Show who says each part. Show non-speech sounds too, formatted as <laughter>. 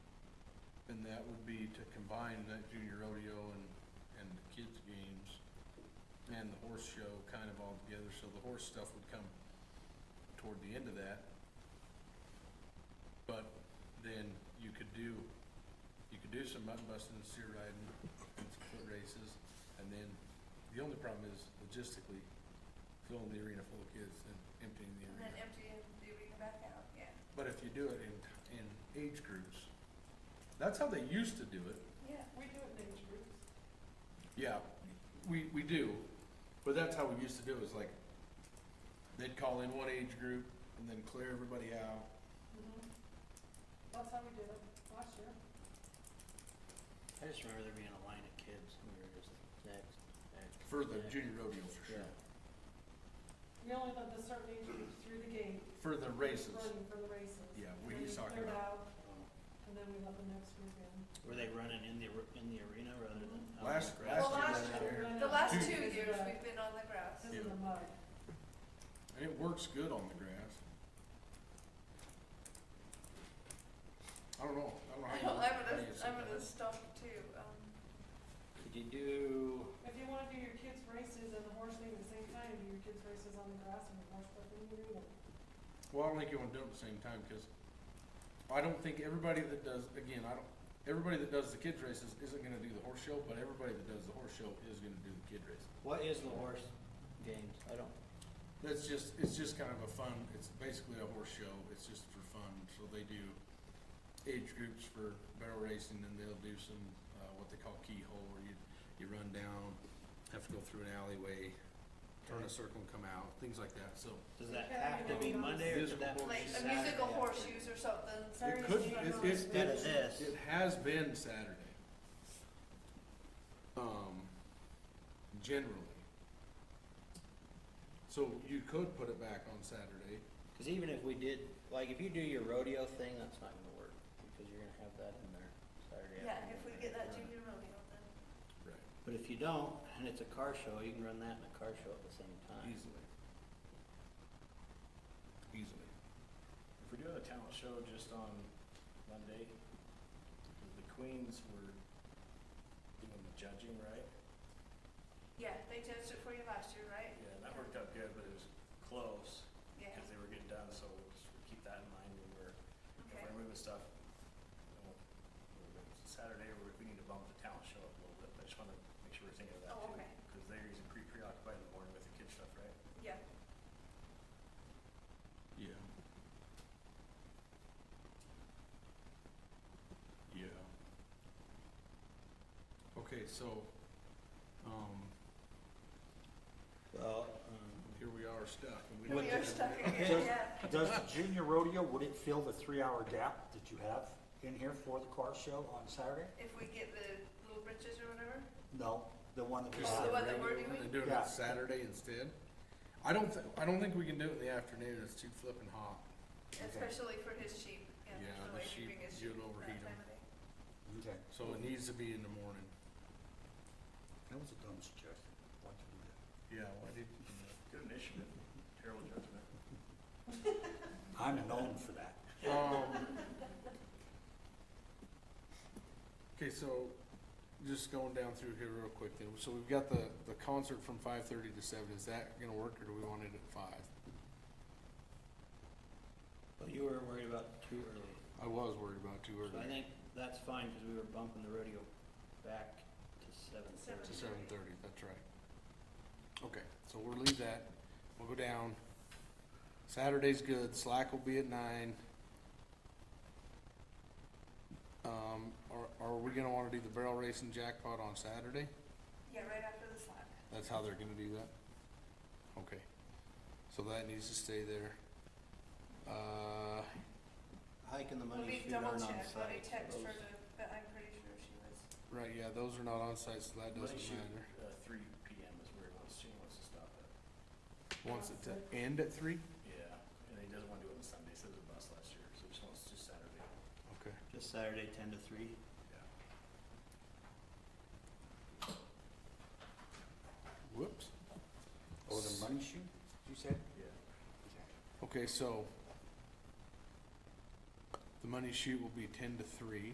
Speaker 1: that would be to combine that junior rodeo and, and the kids' games and the horse show kind of all together, so the horse stuff would come toward the end of that. But then you could do, you could do some mutton busting and steer riding and some foot races. And then the only problem is logistically filling the arena full of kids and emptying the
Speaker 2: And
Speaker 1: arena.
Speaker 2: then emptying the arena back out, yeah,
Speaker 1: But if you do it in, in age groups, that's how they used to do it.
Speaker 2: yeah.
Speaker 3: We do it in age groups.
Speaker 1: Yeah, we, we do, but that's how we used to do it, was like, they'd call in one age group and then clear everybody out.
Speaker 3: Mhm. That's how we did it last year.
Speaker 4: I just remember there being a line of kids and we were just next, next.
Speaker 1: For the
Speaker 4: next.
Speaker 1: junior rodeo, for sure,
Speaker 4: Yeah.
Speaker 3: We only let the certain age groups through the gate,
Speaker 1: for the races.
Speaker 3: running for the races.
Speaker 1: Yeah, what
Speaker 3: Then
Speaker 1: he's
Speaker 3: you
Speaker 1: talking
Speaker 3: cleared
Speaker 1: about.
Speaker 3: out, And then we let the next group in.
Speaker 4: Were they running in the, ar- in the arena rather than? out on the
Speaker 1: Last-
Speaker 4: grass?
Speaker 1: last year was
Speaker 3: Well, last year, we
Speaker 1: there.
Speaker 3: ran
Speaker 2: The
Speaker 3: out
Speaker 2: last
Speaker 3: because
Speaker 2: two
Speaker 3: of
Speaker 2: years,
Speaker 3: the-
Speaker 2: we've been on the grass.
Speaker 3: Because of the mud.
Speaker 1: And it works good on the grass. I don't know, <laughs> I
Speaker 2: <laughs> I'm
Speaker 1: don't know how you, how
Speaker 2: gonna,
Speaker 1: you set
Speaker 2: I'm gonna
Speaker 1: that up.
Speaker 2: stop too, um,
Speaker 4: Could you do,
Speaker 3: If you wanna do your kids' races and the horse thing at the same time, do your kids' races on the grass and the horse stuff in the arena.
Speaker 1: Well, I don't think you wanna do it at the same time, cause I don't think everybody that does, again, I don't, everybody that does the kids races isn't gonna do the horse show, but everybody that does the horse show is gonna do the kid race.
Speaker 4: what is the horse games? I don't,
Speaker 1: That's just, it's just kind of a fun, it's basically a horse show, it's just for fun, so they do age groups for barrel racing, and they'll do some, uh, what they call keyhole, where you, you run down, have to go through an alleyway, turn a circle and come out, things like that, so.
Speaker 4: does that
Speaker 3: Yeah,
Speaker 4: have to be
Speaker 3: yeah.
Speaker 4: Monday or could that be
Speaker 1: Musical
Speaker 2: like a
Speaker 4: Saturday?
Speaker 2: musical
Speaker 4: after?
Speaker 2: horseshoes or something.
Speaker 3: Saturday
Speaker 1: could-
Speaker 3: night,
Speaker 1: it-
Speaker 3: uh,
Speaker 1: it's-
Speaker 4: Instead of this,
Speaker 1: It has been Saturday. Um, generally. So you could put it back on Saturday.
Speaker 4: cause even if we did, like, if you do your rodeo thing, that's not gonna work, because you're gonna have that in there Saturday
Speaker 2: Yeah,
Speaker 4: afternoon.
Speaker 2: if we get that
Speaker 4: Right.
Speaker 2: junior rodeo, then
Speaker 1: Right.
Speaker 4: But if you don't, and it's a car show, you can run that and a car show at the same time.
Speaker 1: Easily. Easily.
Speaker 5: If we're doing a talent show just on Monday, because the queens were doing the judging, right?
Speaker 2: Yeah, they judged it for you last year, right?
Speaker 5: Yeah, that worked out good, but it was close,
Speaker 2: Yeah,
Speaker 5: because they were getting done, so we'll just keep that in mind when we're, if
Speaker 2: okay.
Speaker 5: we're moving stuff. you know, we're gonna- Saturday, we, we need to bump the talent show up a little bit, but I just wanna make sure we're thinking of that
Speaker 2: Oh,
Speaker 5: too.
Speaker 2: okay.
Speaker 5: Because they're usually pretty preoccupied in the morning with the kid stuff, right?
Speaker 2: Yeah,
Speaker 1: Yeah. Yeah. Okay, so, um,
Speaker 4: Well, um,
Speaker 1: here we are stuck. and
Speaker 2: we are stuck again,
Speaker 6: Just-
Speaker 2: yeah.
Speaker 6: Does the junior rodeo, would it fill the three-hour gap that you have in here for the car show on Saturday?
Speaker 2: If we get the little britches or whatever,
Speaker 6: No, the one that we
Speaker 1: Just
Speaker 2: Oh,
Speaker 1: the
Speaker 2: what
Speaker 6: have.
Speaker 2: they were
Speaker 1: regular one,
Speaker 2: doing?
Speaker 1: they do it
Speaker 6: Yeah.
Speaker 1: on Saturday instead. I don't thi- I don't think we can do it in the afternoon, it's too flippin' hot.
Speaker 2: especially for his sheep, yeah,
Speaker 1: Yeah,
Speaker 2: there's
Speaker 1: the
Speaker 2: no way
Speaker 1: sheep,
Speaker 2: keeping his
Speaker 1: you'll
Speaker 2: sheep
Speaker 1: overheat
Speaker 2: that
Speaker 1: 'em.
Speaker 2: time of day.
Speaker 6: Okay,
Speaker 1: So it needs to be in the morning.
Speaker 6: that was a dumb suggestion. Why'd you do that?
Speaker 1: Yeah, why did
Speaker 5: Good initiative, terrible judgment.
Speaker 6: I'm known for that.
Speaker 1: Um. Okay, so just going down through here real quick then. So we've got the, the concert from five thirty to seven. Is that gonna work or do we want it at five?
Speaker 4: but you were worried about too early.
Speaker 1: I was worried about too
Speaker 4: So I
Speaker 1: early.
Speaker 4: think that's fine, because we were bumping the rodeo back to seven
Speaker 2: Seven.
Speaker 4: thirty.
Speaker 1: To seven thirty, that's right. Okay, so we'll leave that. We'll go down. Saturday's good. Slack will be at nine. Um, are, are we gonna wanna do the barrel racing jackpot on Saturday?
Speaker 2: Yeah, right after the slap.
Speaker 1: That's how they're gonna do that? Okay. So that needs to stay there. Uh,
Speaker 4: Hiking the
Speaker 2: Let
Speaker 4: money
Speaker 2: me
Speaker 4: shoot aren't
Speaker 2: double
Speaker 4: on
Speaker 2: check,
Speaker 4: site.
Speaker 2: let me text
Speaker 4: Those-
Speaker 2: her, to- but I'm pretty sure she was,
Speaker 1: right, yeah, those are not on site, so that doesn't
Speaker 5: Monday shoot,
Speaker 1: matter.
Speaker 5: Uh, three P M is where he wants, she wants to stop at.
Speaker 1: Wants it to end at three?
Speaker 5: Yeah, and he doesn't want to do it on Sunday, so there's a bus last year, so he just wants to do Saturday.
Speaker 1: Okay.
Speaker 4: Just Saturday, ten to three.
Speaker 5: Yeah.
Speaker 1: Whoops.
Speaker 6: Oh, the money shoot, you said?
Speaker 5: Yeah.
Speaker 1: Okay, so the money shoot will be ten to three.